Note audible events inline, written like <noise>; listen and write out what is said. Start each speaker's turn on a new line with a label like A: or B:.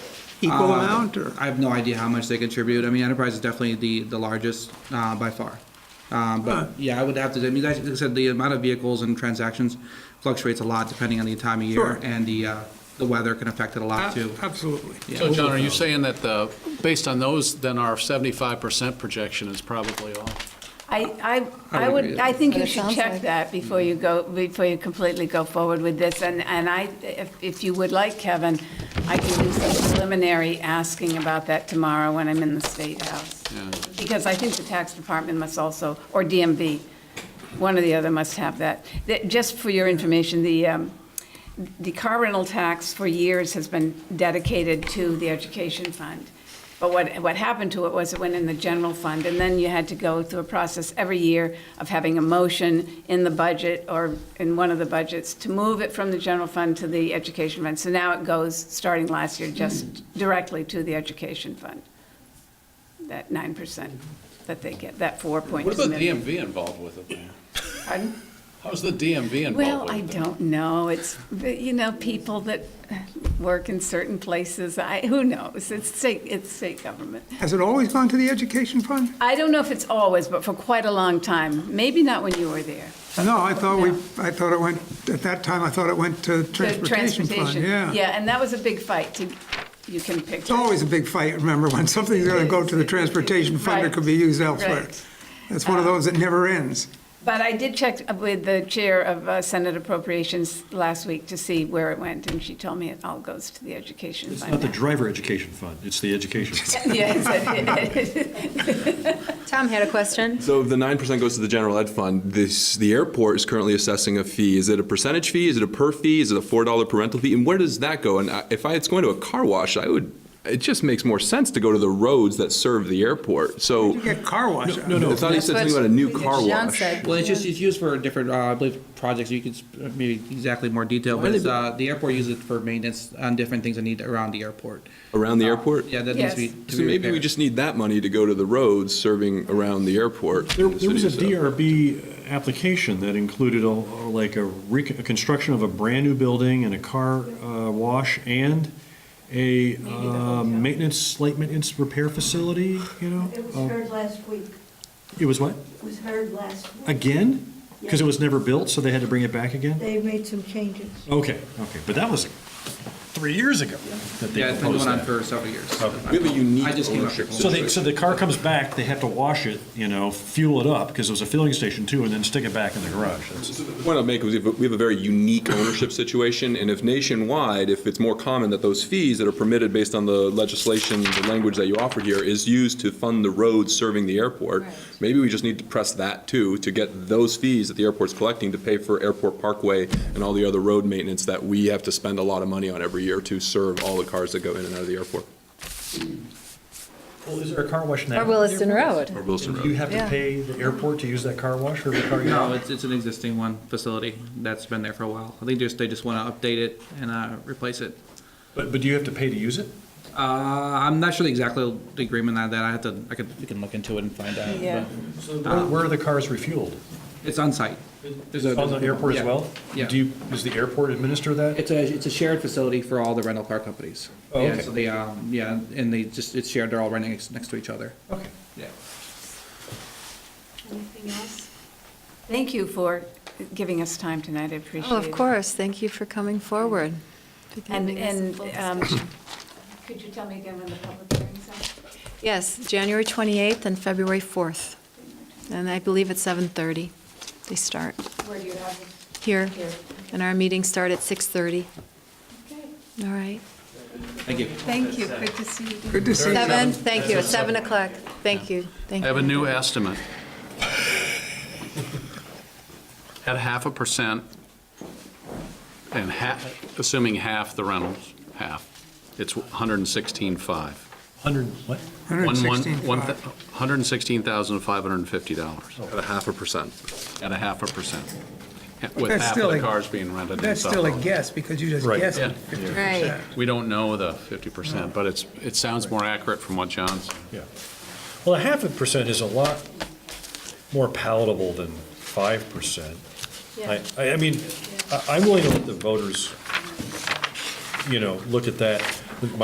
A: Equal
B: Um,
C: Uh,
A: amount, or?
C: I have no idea how much they contribute. I mean, Enterprise is definitely the, the largest uh, by far.
A: Huh.
C: Um, But yeah, I would have to, I mean, like I said, the amount of vehicles and transactions fluctuates a lot depending on the time of year.
A: Sure.
C: And the, uh, the weather can affect it a lot too.
A: Ab- Absolutely.
B: So John, are you saying that the, based on those, then our 75% projection is probably off?
D: I, I,
C: I
D: I
C: would agree.
D: would, I think
E: But
D: you
E: it
D: should
E: sounds
D: check
E: like-
D: that before you go, before you completely go forward with this. And, and I, if, if you would like, Kevin, I can do some preliminary asking about that tomorrow when I'm in the State House. Because I think the tax department must also, or DMV, one or the other must have that. That- Just for your information, the, um, the car rental tax for years has been dedicated to the education fund. But what, what happened to it was it went in the general fund, and then you had to go through a process every year of having a motion in the budget or in one of the budgets to move it from the general fund to the education fund. So now it goes, starting last year, just directly to the education fund, that 9% that they get, that 4.2
B: What is the
D: million.
B: DMV involved with it, Mayor?
D: Pardon?
B: How's the DMV involved
D: Well, I
B: with it?
D: don't know. It's, you know, people that work in certain places, I, who knows? It's state, it's state government.
A: Has it always gone to the education fund?
D: I don't know if it's always, but for quite a long time. Maybe not when you were there.
A: No, I thought we,
D: No.
A: I thought it went, at that time, I thought it went to
D: The
A: transportation fund, yeah.
D: Yeah, and that was a big fight to, you can picture.
A: It's always a big fight, remember, when something's gonna go to the transportation fund, it could be used elsewhere.
D: Right.
A: That's one of those that never ends.
D: But I did check with the chair of uh, Senate Appropriations last week to see where it went, and she told me it all goes to the education
F: It's
D: fund.
F: not the
D: now.
F: driver education fund, it's the education. fund.
D: Yes, it is.
E: Tom had a question.
G: So if the nine percent goes to the general ed fund, this, the airport is currently assessing a fee. Is it a percentage fee? Is it a per fee? Is it a four dollar parental fee? And where does that go? And I- if I, it's going to a car wash, I would, it just makes more sense to go to the roads that serve the airport.
B: Oh.
G: So.
A: You get car wash. out of it.
G: I thought he said something about a new car
E: John
G: wash.
E: said.
C: Well, it's just, it's used for different, uh, I believe, projects, you could, sp- uh, maybe exactly more detail, but it's, uh, the airport uses it for maintenance on different things that need around the airport.
G: Around the airport?
C: Uh, Yeah, that needs to be.
D: Yes.
C: to
G: So
C: be
G: maybe we
C: repaired.
G: just need that money to go to the roads serving around the airport.
F: <laughs> There
G: in the
F: there was a
G: city, so-
F: DRB application that included a, like a rec- a construction of a brand-new building and a car uh, wash and a
D: the
F: uh,
D: hotel.
F: maintenance, slight maintenance repair facility, you know?
H: It was
F: Uh,
H: heard last week.
F: It was what?
H: It was heard last week.
F: Again? Because it was never built, so they had to bring it back again?
H: They made some changes.
F: Okay, okay, but that was three years ago that they
C: Yeah, it's been
F: proposed
C: going on
F: that.
C: for several years.
G: We have a unique
C: I just came up
G: ownership
C: with
F: So they, so the car comes back, they have to wash it, you know, fuel it up, because it was a filling station too, and then stick it back in the garage. That's-
G: So The point I'll make is we have a- we have a very unique ownership situation, and if nationwide, if it's more common that those fees that are permitted based on the legislation, the language that you offer here, is used to fund the roads serving the airport, maybe we just need to press that too, to get those fees that the airport's collecting to pay for Airport Parkway and all the other road maintenance that we have to spend a lot of money on every year to serve all the cars that go in and out of the airport,
F: Well, is there a car wash now?
E: Or Williston Road.
G: or Wilson
F: Do you
G: Road.
F: have to
E: Yeah.
F: pay the airport to use that car wash or the car?
C: No, it's, it's an existing one, facility, that's been there for a while. I think just, they just wanna update it and, uh, replace it.
F: But, but do you have to pay to use it?
C: Uh, I'm not sure exactly the agreement on that, I have to, I could, we can look into it and find out. but
D: Yeah.
F: So where- where are the cars refueled?
C: It's on site. There's a-
F: On the airport as
C: yeah,
F: well?
C: yeah.
F: Do you, does the airport administer that?
C: It's a, it's a shared facility for all the rental car companies.
F: Oh,
C: Yeah,
F: okay.
C: So they, um, yeah, and they just, it's shared, they're all renting next- next to each other.
F: Okay.
C: Yeah.
E: Anything else?
D: Thank you for giving us time tonight, I appreciate it.
E: Oh, of course, thank you for coming forward. for
D: And,
E: giving us a
D: and,
E: full
D: um,
E: discussion.
D: could you tell me again when the public hearing's are?
E: Yes, January 28th and February 4th. And I believe at 7:30 they start
D: Where do you have it?
E: here.
D: Here.
E: And our meetings start at 6:30. All right.
C: Thank you.
D: Thank you, good to see you.
A: Good to see you.
E: Seven, thank you, at 7 o'clock. Thank you, thank
B: I
E: you.
B: have a new estimate. At half a percent, and half, assuming half the rentals, half, it's 116.5.
F: Hundred, what?
B: One- one-
A: 116.
B: one thou- $116,550
G: At a half a percent.
B: at a half a percent, with
A: That's
B: half
A: still
B: of the
A: a-
B: cars being rented and
A: That's still a
B: stuff.
A: guess, because you just
F: Right.
A: guessed
B: Yeah.
A: fifty
E: Right.
A: percent.
B: We don't know the 50%, but it's, it sounds more accurate from what John's.
F: Yeah. Well, a half a percent is a lot more palatable than five percent. I, I I mean, I- I'm willing to let the voters, you know, look at that